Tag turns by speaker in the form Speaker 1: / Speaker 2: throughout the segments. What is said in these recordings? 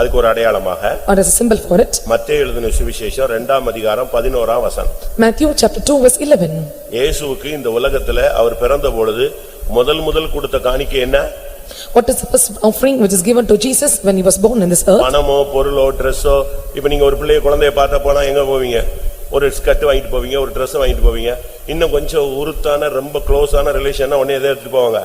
Speaker 1: அதுக்கு ஒரு அடையாளமாக
Speaker 2: or as a symbol for it.
Speaker 1: மத்தேயு எழுதின சுவிசேஷம் இரண்டாம் அதிகாரம் பதினோராம் வசனம்
Speaker 2: Matthew chapter 2 verse 11.
Speaker 1: இயேசுவுக்கு இந்த உலகத்துல அவர் பிறந்த பொழுது முதல் முதல் கொடுத்த காணிக்கை என்ன
Speaker 2: What is the first offering which is given to Jesus when he was born in this earth?
Speaker 1: பணமோ பொருளோ ட்ரெஸ்ஸோ இப்ப நீங்க ஒரு பிள்ளைய குழந்தைய பார்த்த போனா எங்க போவீங்க ஒரு ஸ்கர்ட் வாங்கிட்டு போவீங்க ஒரு Dress வாங்கிட்டு போவீங்க இன்னும் கொஞ்சம் உருத்தான ரொம்ப க்ளோஸான ரிலேஷன்னா உடனே எதை எடுத்துட்டு போவாங்க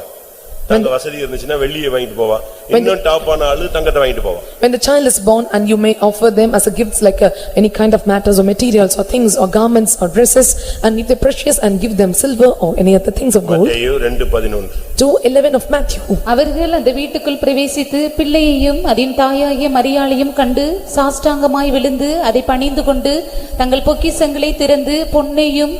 Speaker 1: தங்க வசதி இருந்துச்சுன்னா வெள்ளியை வாங்கிட்டு போவான் இன்னும் டாப்பான ஆளு தங்கத்தை வாங்கிட்டு போவான்
Speaker 2: When the child is born and you may offer them as a gifts like uh, any kind of matters or materials or things or garments or dresses and if they're precious and give them silver or any other things of gold.
Speaker 1: மத்தேயு ரெண்டு பதினொன்று
Speaker 2: 2:11 of Matthew.
Speaker 3: அவர்கள் அந்த வீட்டுக்குள் பிரவேசித்து பிள்ளையையும் அதன் தாயாகிய மரியாளையும் கண்டு சாஷ்டாங்கமாய் விழுந்து அதை பணிந்து கொண்டு தங்கள் பொக்கிஷங்களை திறந்து பொன்னையும்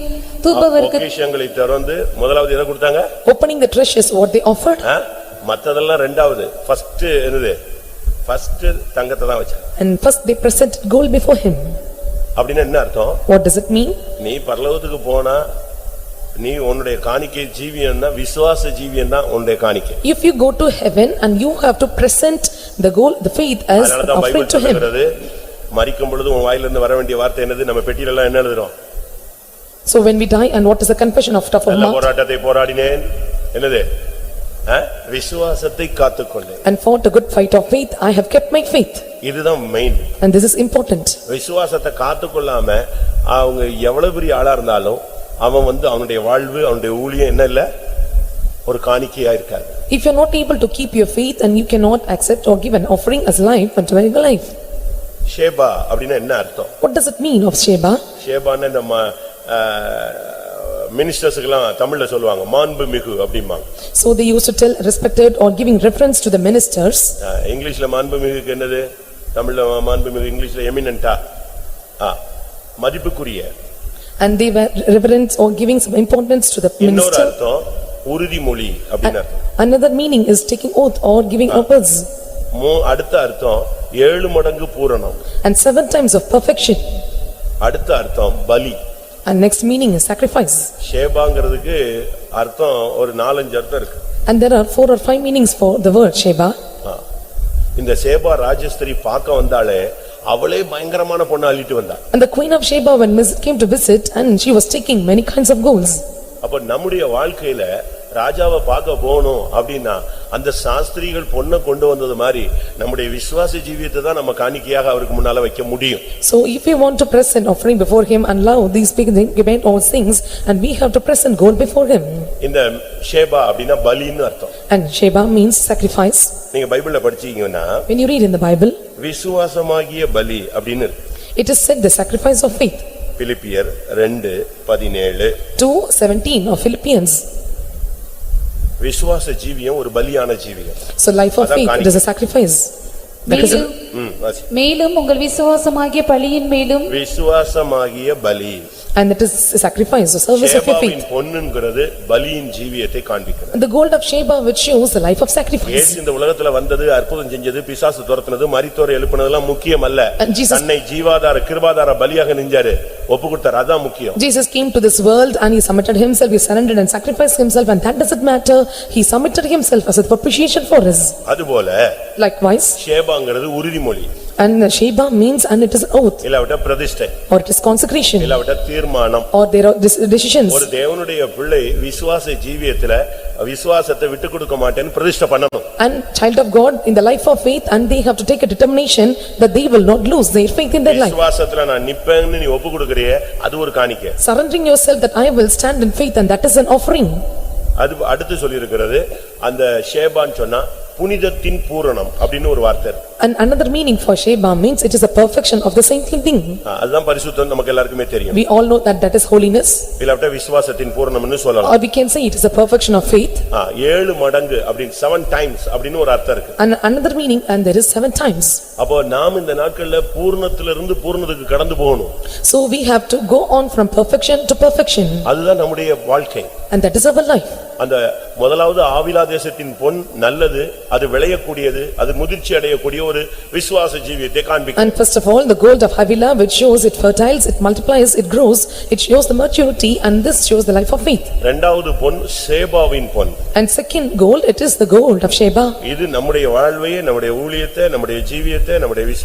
Speaker 3: தூபவர்க்க
Speaker 1: பொக்கிஷங்களை திறந்து முதலாவது எதை கொடுத்தாங்க
Speaker 2: Opening the treasures what they offered
Speaker 1: ஆ? மத்ததெல்லாம் ரெண்டாவது ஃபர்ஸ்ட் என்னது ஃபர்ஸ்ட் தங்கத்தை தான் வச்ச
Speaker 2: and first they presented gold before him.
Speaker 1: அப்படின்னு என்ன அர்த்தம்
Speaker 2: What does it mean?
Speaker 1: நீ பரலோகத்துக்கு போனா நீ உன்னுடைய காணிக்கை ஜீவியன்னா விசுவாச ஜீவியன்னா உன்னுடைய காணிக்கை
Speaker 2: If you go to heaven and you have to present the gold, the faith as an
Speaker 1: அதனாலதான்
Speaker 2: offering
Speaker 1: பைபிள்
Speaker 2: to him.
Speaker 1: சொல்லுகிறது மறிக்கும் பொழுது உன் வாயிலிருந்து வர வேண்டிய வார்த்தை என்னது நம்ம பெட்டியில எல்லாம் என்ன எழுதுறோம்
Speaker 2: So when we die and what is the confession of tough of
Speaker 1: நல்ல
Speaker 2: mouth
Speaker 1: போராட்டத்தை போராடினேன் என்னது ஆ? விசுவாசத்தை காத்துக்கொண்டேன்
Speaker 2: and fought a good fight of faith, I have kept my faith
Speaker 1: இதுதான் main
Speaker 2: and this is important.
Speaker 1: விசுவாசத்தை காத்துக்கொள்ளாம அவங்க எவ்வளவு பெரிய ஆளா இருந்தாலும் அவன் வந்து அவனுடைய வாழ்வு அவனுடைய ஊழியம் என்ன இல்ல ஒரு காணிக்கையா இருக்காது
Speaker 2: If you are not able to keep your faith and you cannot accept or give an offering as life unto very life,
Speaker 1: ஷேபா அப்படின்னா என்ன அர்த்தம்
Speaker 2: what does it mean of Sheba?
Speaker 1: ஷேபான்னு இந்த மினிஸ்டர்ஸுக்கெல்லாம் தமிழ்ல சொல்லுவாங்க மாண்பு மிகு அப்படிம்பாங்க
Speaker 2: So they used to tell respected or giving reference to the ministers
Speaker 1: அஹ், இங்கிலீஷ்ல மாண்பு மிகுக்கு என்னது தமிழ்ல மாண்பு மிகு இங்கிலீஷ்ல எமினன்டா மதிப்புக்குரிய
Speaker 2: and they were reverence or giving some importance to the
Speaker 1: இன்னொரு
Speaker 2: minister.
Speaker 1: அர்த்தம் உறுதிமொழி அப்படின்னு அர்த்தம்
Speaker 2: Another meaning is taking oath or giving oaths
Speaker 1: மூ- அடுத்த அர்த்தம் ஏழு மடங்கு பூரணம்
Speaker 2: and seven times of perfection.
Speaker 1: அடுத்த அர்த்தம் பலி
Speaker 2: And next meaning is sacrifice.
Speaker 1: ஷேபாங்கிறதுக்கு அர்த்தம் ஒரு நாலஞ்சு அர்த்தம் இருக்கு
Speaker 2: And there are four or five meanings for the word Sheba.
Speaker 1: ஆ. இந்த சேபா ராஜஸ்திரி பார்க்க வந்தாலே அவளே பயங்கரமான பொண்ணு அள்ளிட்டு வந்தா
Speaker 2: And the queen of Sheba when Miss came to visit and she was taking many kinds of golds.
Speaker 1: அப்ப நம்முடைய வாழ்க்கையில ராஜாவை பார்க்க போகணும் அப்படின்னா அந்த சாஸ்திரிகள் பொண்ணை கொண்டு வந்தது மாதிரி நம்முடைய விசுவாச ஜீவியத்தை தான் நம்ம காணிக்கையாக அவருக்கு முன்னால வைக்க முடியும்
Speaker 2: So if we want to present offering before him and allow these big thing- given all things and we have to present gold before him.
Speaker 1: இந்த ஷேபா அப்படின்னா பலின்னு அர்த்தம்
Speaker 2: And Sheba means sacrifice.
Speaker 1: நீங்க பைபிள்ல படிச்சீங்கன்னா
Speaker 2: When you read in the Bible,
Speaker 1: விசுவாசமாகிய பலி அப்படின்னு இருக்கு
Speaker 2: it is said the sacrifice of faith.
Speaker 1: பிலிப்பியர் ரெண்டு பதினேழு
Speaker 2: Two seventeen of Philippians.
Speaker 1: விசுவாச ஜீவியம் ஒரு பலியான ஜீவியம்
Speaker 2: So life of
Speaker 1: அதான்
Speaker 2: faith, it
Speaker 1: காணிக்கை.
Speaker 2: is a sacrifice. Because
Speaker 3: மேலும்
Speaker 1: ம், வாசி.
Speaker 3: மேலும் உங்கள் விசுவாசமாகிய பலியின் மேலும்
Speaker 1: விசுவாசமாகிய பலி
Speaker 2: and it is a sacrifice, a service of your faith.
Speaker 1: சேபாவின் பொன்னுங்கிறது பலியின் ஜீவியத்தை காண்பிக்கிறது
Speaker 2: The gold of Sheba which shows the life of sacrifice.
Speaker 1: இயேசு இந்த உலகத்துல வந்தது அற்புதம் செஞ்சது பிசாசு துரத்துனது மரித்தோரை எழுப்புனதெல்லாம் முக்கியம் அல்ல
Speaker 2: And Jesus-
Speaker 1: தன்னை ஜீவாதார கிருபாதார பலியாக நெஞ்சாரு ஒப்பு கொடுத்தார் அதான் முக்கியம்
Speaker 2: Jesus came to this world and he submitted himself, he surrendered and sacrificed himself and that doesn't matter. He submitted himself as a propitiation for us.
Speaker 1: அதுபோல
Speaker 2: Likewise,
Speaker 1: சேபாங்கிறது உறுதிமொழி
Speaker 2: and Sheba means and it is an oath
Speaker 1: இல்லாவிட்ட பிரதிஷ்டை
Speaker 2: or it is consecration
Speaker 1: இல்லாவிட்ட தீர்மானம்
Speaker 2: or there are dec- decisions.
Speaker 1: ஒரு தேவனுடைய பிள்ளை விசுவாச ஜீவியத்துல விசுவாசத்தை விட்டு கொடுக்க மாட்டேன்னு பிரதிஷ்டை பண்ணணும்
Speaker 2: And child of God in the life of faith and they have to take a determination that they will not lose their faith in their life.
Speaker 1: விசுவாசத்துல நான் நிப்பேன்னு நீ ஒப்பு கொடுக்கறியே அது ஒரு காணிக்கை
Speaker 2: Surrendering yourself that I will stand in faith and that is an offering.
Speaker 1: அது அடுத்து சொல்லியிருக்கிறது அந்த ஷேபான்னு சொன்னா புனிதத்தின் பூரணம் அப்படின்னு ஒரு வார்த்தை இருக்கு.
Speaker 2: And another meaning for Sheba means it is a perfection of the same thing.
Speaker 1: ஆ, அதுதான் பரிசுத்தம் நமக்கு எல்லாருக்குமே தெரியும்
Speaker 2: We all know that that is holiness
Speaker 1: இல்லாவிட்டா விசுவாசத்தின் பூரணம்னு சொல்லலாம்
Speaker 2: or we can say it is a perfection of faith.
Speaker 1: ஆ, ஏழு மடங்கு அப்படின்னு செவன் டைம்ஸ் அப்படின்னு ஒரு அர்த்தம் இருக்கு
Speaker 2: And another meaning, and there is seven times.
Speaker 1: அப்போ நாம் இந்த நாட்கள்ல பூர்ணத்துல இருந்து பூர்ணத்துக்கு கடந்து போகணும்
Speaker 2: So we have to go on from perfection to perfection
Speaker 1: அதுதான் நம்முடைய வாழ்க்கை
Speaker 2: and that is our life.
Speaker 1: அந்த முதலாவது ஆவிலா தேசத்தின் பொன் நல்லது அது விளையக்கூடியது அது முதிர்ச்சி அடையக்கூடிய ஒரு ஒரு விசுவாச ஜீவியத்தை காண்பிக்கும்
Speaker 2: And first of all, the gold of Havilah which shows it fertiles, it multiplies, it grows, it shows the maturity and this shows the life of faith.
Speaker 1: இரண்டாவது பொன் சேபாவின் பொன்
Speaker 2: And second gold, it is the gold of Sheba.
Speaker 1: இது நம்முடைய வாழ்வையே நம்முடைய ஊழியத்தை நம்முடைய ஜீவியத்தை நம்முடைய விசுவாசத்தை